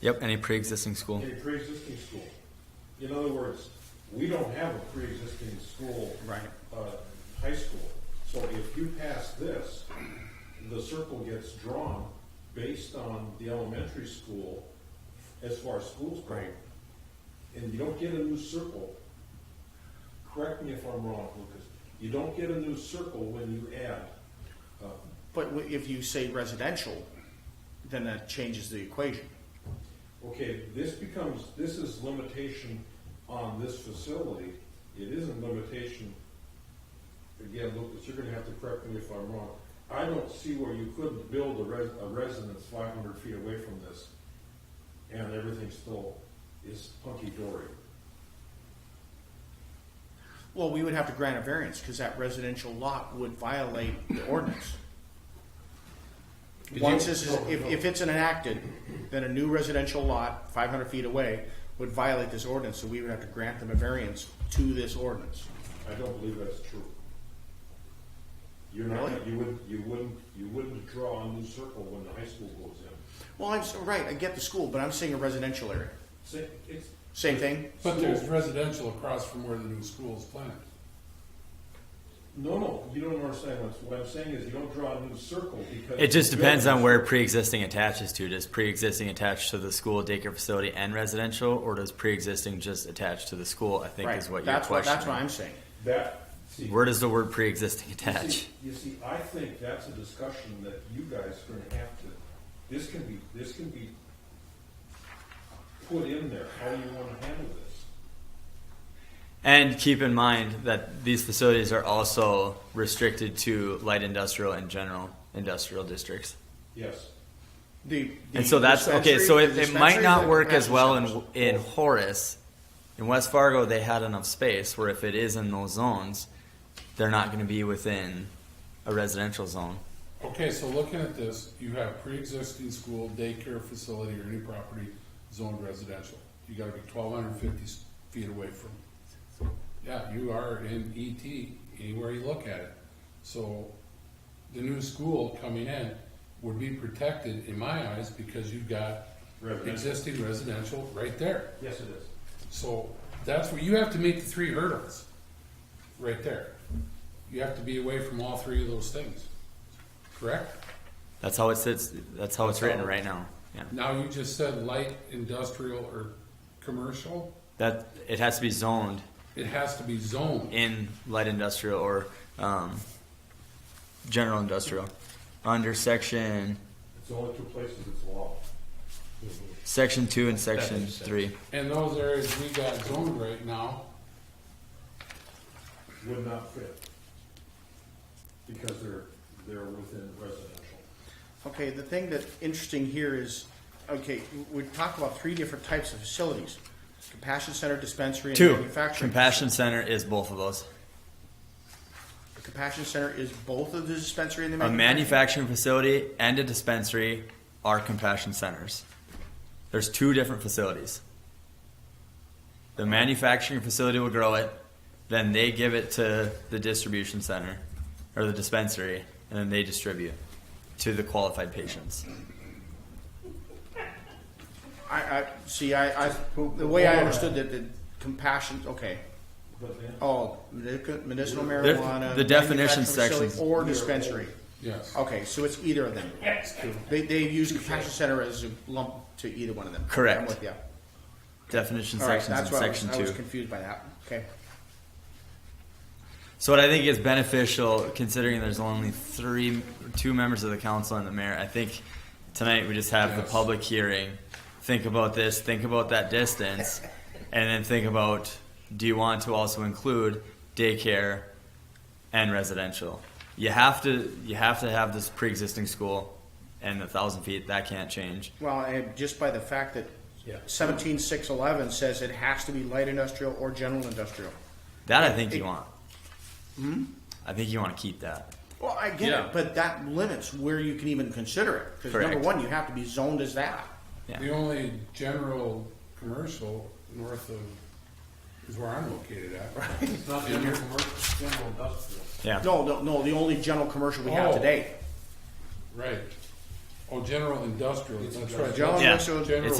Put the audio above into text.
Yep, any pre-existing school. in a pre-existing school. In other words, we don't have a pre-existing school. Right. Uh, high school. So if you pass this, the circle gets drawn based on the elementary school as far as schools go. Right. And you don't get a new circle. Correct me if I'm wrong, Lucas. You don't get a new circle when you add. uh, But w- if you say residential, then that changes the equation. Okay, this becomes, this is limitation on this facility. It isn't limitation, again, Lucas, you're gonna have to correct me if I'm wrong. I don't see where you couldn't build a res, a residence five hundred feet away from this and everything still is hunky-dory. Well, we would have to grant a variance because that residential lot would violate the ordinance. Once this is, if, if it's enacted, then a new residential lot, five hundred feet away, would violate this ordinance, so we would have to grant them a variance to this ordinance. I don't believe that's true. You're not, Really? you wouldn't, you wouldn't, you wouldn't draw a new circle when the high school goes in. Well, I'm, s- right, I get the school, but I'm saying a residential area. Say, it's, Same thing? But there's residential across from where the new school is planned. No, no, you don't understand what, what I'm saying is you don't draw a new circle because. It just depends on where pre-existing attaches to. Does pre-existing attach to the school daycare facility and residential, or does pre-existing just attach to the school? I think Right. is what your That's what, question. that's what I'm saying. That, see. Where does the word pre-existing you attach? see- You see, I think that's a discussion that you guys are gonna have to, this can be, this can be put in there, how you wanna handle this. And keep in mind that these facilities are also restricted to light industrial and general industrial districts. Yes, The- the And so that's okay. dispensary- So the it, it might dispensaries not and work as well in practice in centers. Horace. In West Fargo, they had enough space where if it is in those zones, they're not going to be within a residential zone. Okay, so looking at this, you have pre-existing school, daycare facility, or any property zoned residential. You gotta be twelve hundred and fifty feet away from. it. Yeah, you are in ET, anywhere you look at it. So the new school coming in would be protected, in my eyes, because you've got Residential. existing residential right there. yes it is. So that's where you have to meet the three hurdles, right there. You have to be away from all three of those things, correct? That's how it sits. That's how it's written right now. Yeah. Now, you just said light industrial or commercial, That it has to be zoned it has to be zoned. in light industrial or um, general industrial under section It's the only two places it's allowed. section two and section makes sense. three. And those areas we got zoned right now, would not fit. Because they're, they're within residential. Okay, the thing that's interesting here is, okay, we talked about three different types of facilities. Compassion center, dispensary, and Two manufacturing. compassion center is both of those. The compassion center is both of the dispensary and the A manufacturing. manufacturing facility and a dispensary are compassion centers. There's two different facilities. The manufacturing facility will grow it, then they give it to the distribution center or the dispensary, and then they distribute to the qualified patients. I, I, see, I, I, the way I understood that, the compassion, okay, But then, oh, medic- medicinal There- marijuana. the definition manufacturing facility, sections. Or dispensary. yes. Okay, so it's either of them. They, they use compassion center as a lump to either one of them. Correct. I'm with you. Definition All right, sections that's in why I was, section I two. was confused by that. Okay. So what I think is beneficial, considering there's only three, two members of the council and the mayor, I think tonight we just have the Yes. public hearing. Think about this, think about that distance, and then think about, do you want to also include daycare and residential? You have to, you have to have this pre-existing school and the thousand feet, that can't change. Well, and just by the fact that seventeen six eleven says it has to be light industrial or general industrial. That I think you It- want. I think you wanna keep that. Well, I get Yeah. it, but that limits where you can even consider it. Because number Correct. one, you have to be zoned as that. Yeah. The only general commercial north of, is where I'm located at. it's not in your commercial, general industrial. Yeah. No, no, no. The only general commercial we have Oh. today. Right. Oh, general industrial, that's right. General Yeah. industrial. General It's